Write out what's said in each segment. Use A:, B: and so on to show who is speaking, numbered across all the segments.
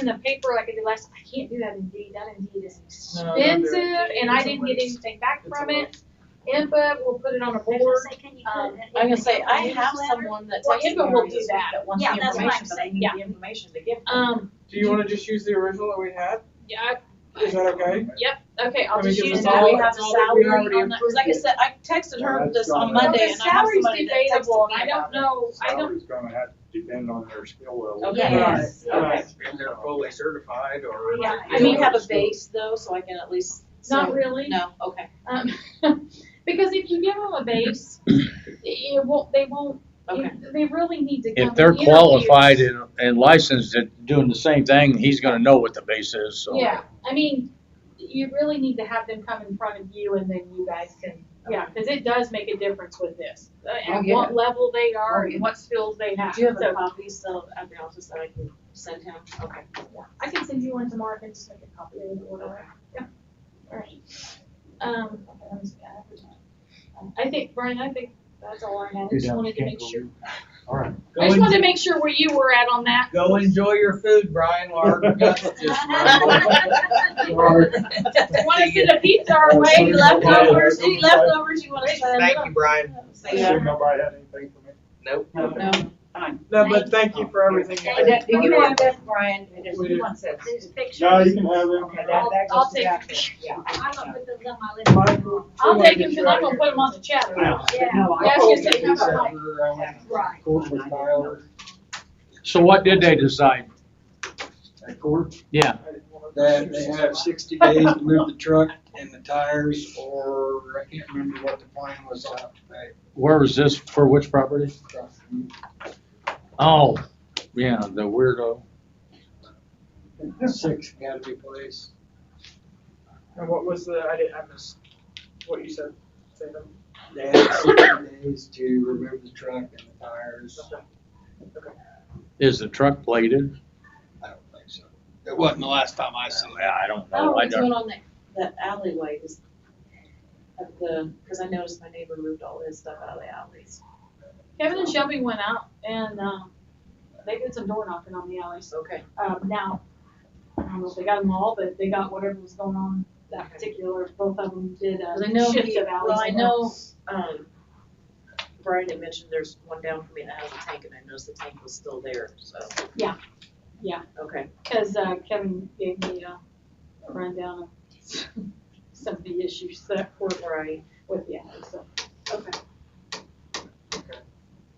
A: in the paper like I did last, I can't do that indeed, that indeed is
B: No, don't do it.
A: expensive, and I
B: It's a
A: didn't get
B: waste.
A: anything back
B: It's a
A: from it. INPA, we'll put it on a board, um,
C: I'm gonna say, I have someone that
A: Well,
C: takes
A: Inga will
C: areas
A: do that.
C: that wants
D: Yeah,
C: the
D: that's what I'm
C: information, but I
D: saying.
C: need
A: Yeah.
C: the information to give them.
A: um,
B: Do you wanna just use the original that we had?
A: yeah,
B: Is that okay?
A: I- okay, I'll
B: Can we
A: just
B: give
A: use
B: us
A: that.
B: all-
C: we have a
B: it's all that we
C: salary
B: already
C: on that, 'cause like I said, I texted her
E: Yeah,
C: this
E: that's
C: on
E: gone out.
C: Monday
A: Well,
C: and I have
A: The
C: somebody
A: salary's
C: that texted
A: debatable,
C: me
A: and I
C: about
A: don't
C: it.
A: know, I don't,
E: Salary's gonna have to depend on their skill level.
C: Okay.
B: Yes.
C: Okay.
F: And they're fully certified or.
A: Yeah,
C: I mean, have a base though, so I can at least.
A: not
C: say-
A: really.
C: No, okay,
A: Um, because if you give them a base, it won't, they won't,
C: okay.
A: they really need to come.
G: If they're
A: to
G: qualified
A: interviews.
G: and, and licensed at doing the same thing, he's gonna know what the base is, so.
A: Yeah, I mean, you really need to have them come in front of you and then you guys can, yeah, cause it does make a difference with this. uh,
C: Oh,
A: At
C: yeah.
A: what level they are
C: Oh, yeah.
A: and what skills they have,
C: Do you have a
A: so
C: copy still at the office that I can send him? Okay.
A: I can send you one tomorrow and just make a copy of it or whatever. Yeah. Alright. Um, I think, Brian, I think that's all I had, I just wanted to make sure,
E: Alright.
A: I just wanted to make sure where you were at on that.
F: Go enjoy your food, Brian, Lark.
A: Wanna send a pizza
C: Oh,
A: our way,
E: Any leftovers?
C: Any leftovers you wanna send?
F: Thank you, Brian.
C: Yeah.
E: Assume nobody had anything for me?
F: Nope.
C: No, fine.
B: No, but thank you for everything. you
D: Thank
B: did.
D: you.
H: You want this, Brian, and there's
B: We
H: two
B: do.
H: ones that-
D: There's pictures.
E: No, you can have them.
H: Okay, that, that
A: I'll
H: goes to
A: take-
H: that, thing, yeah.
D: I'm gonna put those on my list.
B: Michael,
A: I'll
B: we wanna
A: take
B: get
A: him,
B: you
A: cause I'm
B: out of
A: gonna put him on the chat.
E: Wow.
D: Yeah,
A: Yeah, I was gonna say, how
B: uh,
A: about Mike?
B: here.
D: right.
E: Court with Tyler.
G: So what did they decide?
I: At court,
G: Yeah,
I: that they have sixty days to move the truck and the tires, or I can't remember what the plan was out to pay.
G: where was this, for which property? Oh, yeah, the weirdo.
I: Six gotta be placed.
B: And what was the, I didn't, I missed what you said. Say them.
I: They have sixty days to remove the truck and the tires.
G: Is the truck plated?
I: I don't think so. It wasn't the last time I saw
G: Yeah, I don't
C: Oh,
G: know, I
C: what's going
G: don't.
C: on that, that alleyway is, of the, cause I noticed my neighbor moved all his stuff out of the alleys.
A: Kevin and Shelby went out and, um, they did some door knocking on the alleys.
C: Okay.
A: Um, now, I don't know if they got them all, but they got whatever was going on that particular, both of them did
C: Cause I
A: a
C: know,
A: shift
C: he-
A: of
C: well, I
A: alleys.
C: know, um, Brian had mentioned there's one down from me that has a tank and I noticed the tank was still there, so.
A: Yeah. Yeah.
C: Okay.
A: Cause, uh, Kevin gave me uh, a rundown of some of the issues that were
C: Right.
A: with the alley, so.
C: Okay.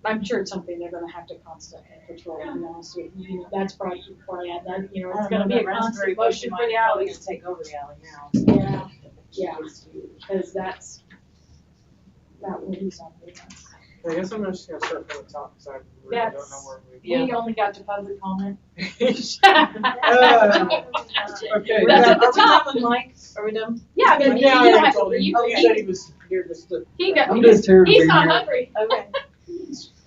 A: I'm sure it's something they're gonna have to constantly patrol, to be honest with you. You know, That's probably, probably, yeah, that, you know, it's gonna be a constant motion for the alleys.
C: Take over the alley now.
A: Yeah, yeah, cause that's, that will be something else.
B: I guess I'm just gonna start from the top, cause I really don't know
A: That's-
B: where we.
A: We only got to public comment.
B: Uh, Okay.
C: We're
A: That's at
C: done.
A: the
C: Are we
A: top.
C: done, Mike? Are we done?
A: Yeah,
B: Yeah,
A: but you don't
B: I
A: have to
B: told him.
A: leave.
B: He said he was here just to.
A: He got,
I: I'm just here to
A: he's
I: be
A: not
I: here.
A: hungry.
C: Okay.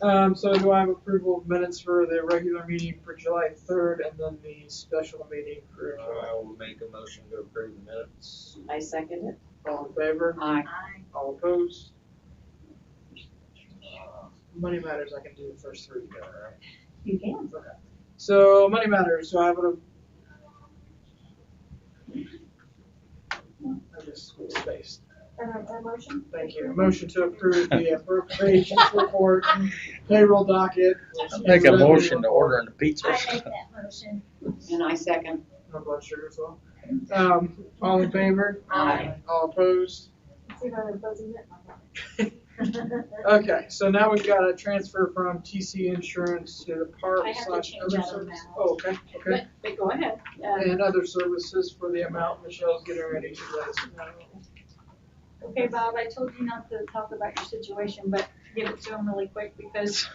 B: Um, so do I have approval of minutes for the regular meeting for July third and then the special meeting for July?
F: I will make a motion to approve the minutes.
C: I second it.
B: All in favor?
C: Aye.
B: All opposed? Money matters, I can do the first three together, right?
H: You can.
B: So money matters. So I would have. I just spaced.
A: motion?
B: Thank you. A Motion to approve the appropriations report, payroll docket.
G: Make a motion to order the pizza.
D: I make that motion.
H: And I second.
B: No blood sugar as well. Um, all in favor?
H: Aye.
B: All opposed?
A: See if I'm opposing it.
B: Okay, so now we've got a transfer from TC Insurance to the park
A: I have to
B: slash
A: change
B: other
A: that on
B: services.
A: that.
B: Oh, okay, okay.
A: But, but go ahead. Uh,
B: And other services for the amount Michelle's getting ready to let us know.
D: Okay, Bob, I told you not to talk about your situation, but give it to him really quick because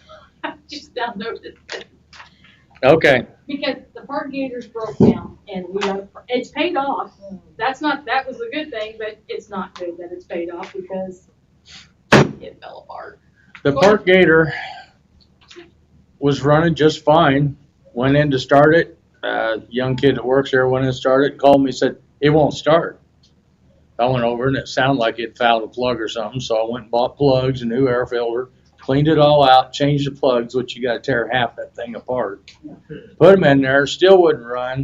D: I just downloaded it.
G: Okay.
A: Because the park gators broke down and we have, it's paid off. That's not, that was a good thing, but it's not good that it's paid off because it fell apart.
G: The park gator was running just fine. Went in to start it. Uh, young kid that works there went in and started, called me, said, it won't start. I went over and it sounded like it fouled a plug or something, so I went and bought plugs, a new air filter, cleaned it all out, changed the plugs, which you gotta tear half that thing apart. Put them in there, still wouldn't run.